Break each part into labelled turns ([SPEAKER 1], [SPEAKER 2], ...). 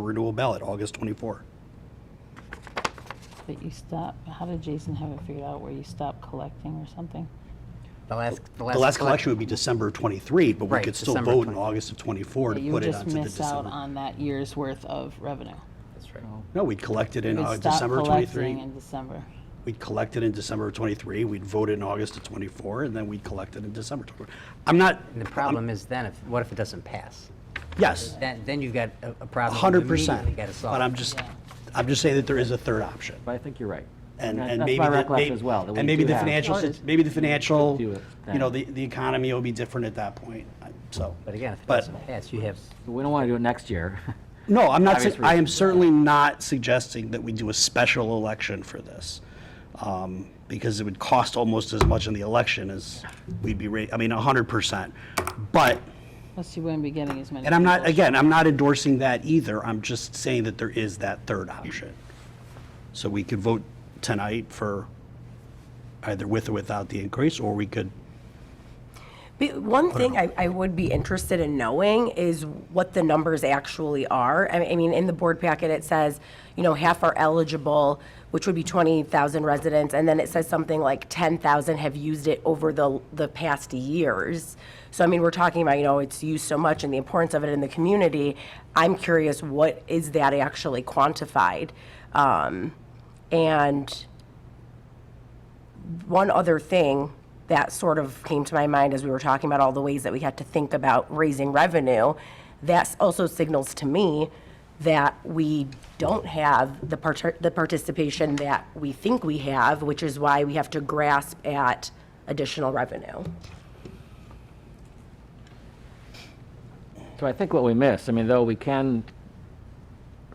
[SPEAKER 1] renewal ballot, August 24.
[SPEAKER 2] But you stop, how did Jason have it figured out where you stop collecting or something?
[SPEAKER 3] The last, the last.
[SPEAKER 1] The last
[SPEAKER 3] collect-
[SPEAKER 1] collection would be December 23, but we
[SPEAKER 3] Right,
[SPEAKER 1] could still
[SPEAKER 3] December
[SPEAKER 1] vote in
[SPEAKER 3] 23.
[SPEAKER 1] August of 24
[SPEAKER 2] That
[SPEAKER 1] to
[SPEAKER 2] you
[SPEAKER 1] put
[SPEAKER 2] would
[SPEAKER 1] it
[SPEAKER 2] just
[SPEAKER 1] onto the
[SPEAKER 2] miss out
[SPEAKER 1] December.
[SPEAKER 2] on that year's worth of revenue.
[SPEAKER 3] That's right.
[SPEAKER 1] No, we'd collect it in
[SPEAKER 2] You would
[SPEAKER 1] uh,
[SPEAKER 2] stop
[SPEAKER 1] December of
[SPEAKER 2] collecting
[SPEAKER 1] 23.
[SPEAKER 2] In December.
[SPEAKER 1] We'd collect it in December of 23, we'd vote in August of 24, and then we'd collect it in December 24. I'm not,
[SPEAKER 3] And the problem is then, if, what if it doesn't pass?
[SPEAKER 1] yes,
[SPEAKER 3] Then, then you've got a a problem. you
[SPEAKER 1] 100%.
[SPEAKER 3] immediately gotta solve.
[SPEAKER 1] But I'm just,
[SPEAKER 2] Yeah.
[SPEAKER 1] I'm just saying that there is a third option.
[SPEAKER 4] But I think you're right.
[SPEAKER 1] And,
[SPEAKER 4] That-
[SPEAKER 1] and
[SPEAKER 4] that's
[SPEAKER 1] maybe.
[SPEAKER 4] my
[SPEAKER 1] the-
[SPEAKER 4] recollection
[SPEAKER 1] maybe-
[SPEAKER 4] as well, that we
[SPEAKER 1] And maybe
[SPEAKER 4] do
[SPEAKER 1] the
[SPEAKER 4] have-
[SPEAKER 1] financial,
[SPEAKER 4] Oh, it
[SPEAKER 1] sit-
[SPEAKER 4] is.
[SPEAKER 1] maybe the financial,
[SPEAKER 4] do it
[SPEAKER 1] you know, the,
[SPEAKER 4] then.
[SPEAKER 1] the economy will be different at that point, I- so.
[SPEAKER 3] But again, if it
[SPEAKER 1] but-
[SPEAKER 3] doesn't pass, you have,
[SPEAKER 4] We don't want to do it next year.
[SPEAKER 1] No, I'm not,
[SPEAKER 4] Obvious
[SPEAKER 1] su- I am
[SPEAKER 4] reasons.
[SPEAKER 1] certainly not suggesting that we do a special election for this. um, Because it would cost almost as much in the election as we'd be, ra- I mean, 100%. But,
[SPEAKER 2] Plus you wouldn't be getting as many.
[SPEAKER 1] and I'm not,
[SPEAKER 2] people.
[SPEAKER 1] again, I'm not endorsing that either, I'm just saying that there is that third option. So we could vote tonight for either with or without the increase, or we could
[SPEAKER 5] Be- One thing I, I would be interested in knowing is what the numbers actually are. I mean- I mean, in the board packet, it says, you know, half are eligible, which would be 20,000 residents, and then it says something like 10,000 have used it over the, the past years. So, I mean, we're talking about, you know, it's used so much and the importance of it in the community. I'm curious, what is that actually quantified? Um, And one other thing that sort of came to my mind as we were talking about all the ways that we had to think about raising revenue, that also signals to me that we don't have the part, the participation that we think we have, which is why we have to grasp at additional revenue.
[SPEAKER 4] So I think what we miss, I mean, though we can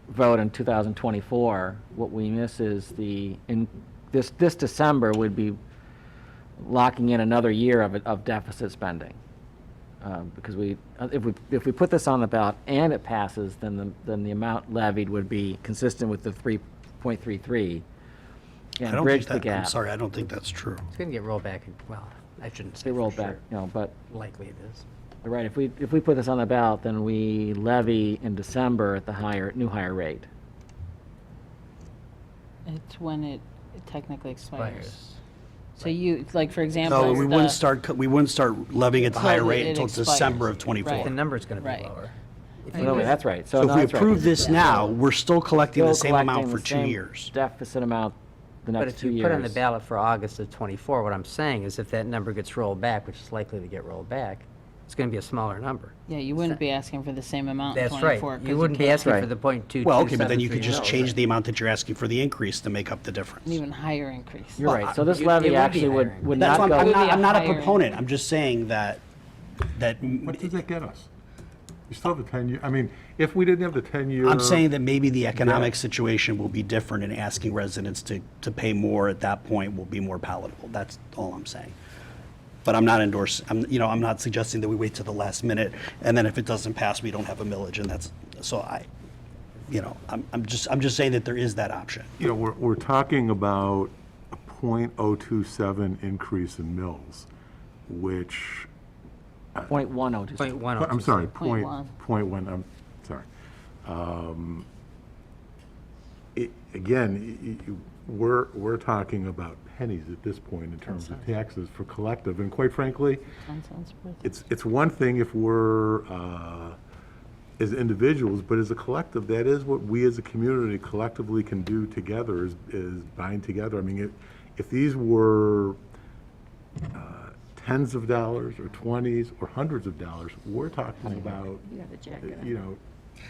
[SPEAKER 4] vote in 2024, what we miss is the, in, this, this December would be locking in another year of, it- of deficit spending. Um, Because we, uh, if we, if we put this on the ballot and it passes, then the, then the amount levied would be consistent with the 3.33
[SPEAKER 1] I
[SPEAKER 4] and
[SPEAKER 1] don't
[SPEAKER 4] bridge
[SPEAKER 1] think
[SPEAKER 4] the
[SPEAKER 1] that, I'm
[SPEAKER 4] gap.
[SPEAKER 1] sorry, I don't think that's true.
[SPEAKER 3] it's gonna get rolled back, well, I shouldn't say
[SPEAKER 4] They roll
[SPEAKER 3] for
[SPEAKER 4] back,
[SPEAKER 3] sure.
[SPEAKER 4] you know, but
[SPEAKER 3] Likely it is.
[SPEAKER 4] You're Right, if we, if we put this on the ballot, then we levy in December at the higher, new higher rate.
[SPEAKER 2] It's when it it technically expires.
[SPEAKER 3] Expires.
[SPEAKER 2] So you, like, for example.
[SPEAKER 1] No, we wouldn't
[SPEAKER 2] the-
[SPEAKER 1] start, co- we wouldn't start levying at the higher
[SPEAKER 2] Until
[SPEAKER 1] rate
[SPEAKER 2] it
[SPEAKER 1] until
[SPEAKER 2] expires.
[SPEAKER 1] December of
[SPEAKER 2] Right.
[SPEAKER 3] The
[SPEAKER 1] 24.
[SPEAKER 3] number's gonna be
[SPEAKER 2] Right.
[SPEAKER 3] lower. If you
[SPEAKER 4] No, wait,
[SPEAKER 3] lose-
[SPEAKER 4] that's right, so.
[SPEAKER 1] So
[SPEAKER 4] no,
[SPEAKER 1] if we
[SPEAKER 4] that's right.
[SPEAKER 1] approve this now, we're still collecting the
[SPEAKER 4] Still
[SPEAKER 1] same amount
[SPEAKER 4] collecting
[SPEAKER 1] for
[SPEAKER 4] the
[SPEAKER 1] two
[SPEAKER 4] same
[SPEAKER 1] years.
[SPEAKER 4] Deficit amount the
[SPEAKER 3] But
[SPEAKER 4] next
[SPEAKER 3] if
[SPEAKER 4] two
[SPEAKER 3] you
[SPEAKER 4] years.
[SPEAKER 3] put on the ballot for August of '24, what I'm saying is if that number gets rolled back, which is likely to get rolled back, it's gonna be a smaller number.
[SPEAKER 2] Yeah, you wouldn't be asking for the same amount in
[SPEAKER 3] That's right.
[SPEAKER 2] twenty-four. 'cause
[SPEAKER 3] You wouldn't be
[SPEAKER 2] can't-
[SPEAKER 3] asking for
[SPEAKER 4] Right.
[SPEAKER 3] the point two.
[SPEAKER 1] Well, okay, but then you could just change the amount that you're asking for the increase to make up the difference.
[SPEAKER 2] Even higher increase.
[SPEAKER 4] You're right, so this
[SPEAKER 3] Well, uh, it- it would
[SPEAKER 4] levy
[SPEAKER 3] be
[SPEAKER 4] actually
[SPEAKER 3] higher.
[SPEAKER 4] would, would
[SPEAKER 1] That's why
[SPEAKER 4] not
[SPEAKER 1] I'm- I'm
[SPEAKER 4] go,
[SPEAKER 1] not,
[SPEAKER 2] Maybe a
[SPEAKER 1] I'm not a
[SPEAKER 2] higher-
[SPEAKER 1] proponent, I'm just saying that, that,
[SPEAKER 6] What does that get us? You still have the 10-year, I mean, if we didn't have the 10-year.
[SPEAKER 1] I'm saying that maybe the economic situation will be different and asking residents to, to pay more at that point will be more palatable. That's all I'm saying. But I'm not endorsing, I'm, you know, I'm not suggesting that we wait to the last minute and then if it doesn't pass, we don't have a millage and that's, so I, you know, I'm, I'm just, I'm just saying that there is that option.
[SPEAKER 6] You know, we're, we're talking about a .027 increase in mills, which,
[SPEAKER 4] point one oh two.
[SPEAKER 3] Point one.
[SPEAKER 6] I'm sorry, point,
[SPEAKER 2] one.
[SPEAKER 6] point one, I'm sorry. Um, it- Again, y- y- you- we're, we're talking about pennies at this point in terms of taxes for collective, and quite frankly,
[SPEAKER 2] Ten cents worth.
[SPEAKER 6] it's, it's one thing if we're, uh, as individuals, but as a collective, that is what we as a community collectively can do together, is, is bind together. I mean, if, if these were uh, tens of dollars, or twenties, or hundreds of dollars, we're talking about, uh, you know,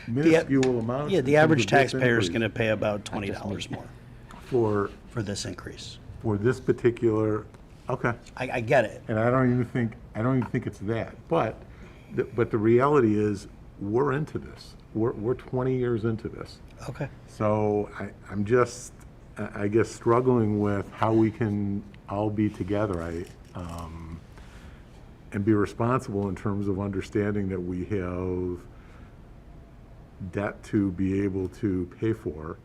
[SPEAKER 6] minuscule amounts.
[SPEAKER 1] Yeah,
[SPEAKER 6] in
[SPEAKER 1] the
[SPEAKER 6] terms
[SPEAKER 1] average
[SPEAKER 6] of this
[SPEAKER 1] taxpayer is
[SPEAKER 6] increase
[SPEAKER 1] going to pay about $20 more
[SPEAKER 6] For,
[SPEAKER 1] for this increase.
[SPEAKER 6] for this particular, okay.
[SPEAKER 1] I, I get it.
[SPEAKER 6] And I don't even think, I don't even think it's that. But, the- but the reality is, we're into this. We're, we're 20 years into this.
[SPEAKER 1] Okay.
[SPEAKER 6] So I, I'm just, I I guess, struggling with how we can all be together. I, um, and be responsible in terms of understanding that we have debt to be able to pay for.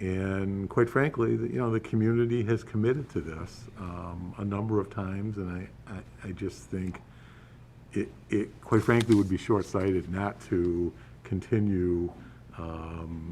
[SPEAKER 6] And quite frankly, the- you know, the community has committed to this um, a number of times, and I, I, I just think it, it, quite frankly, would be short-sighted not to continue um, um,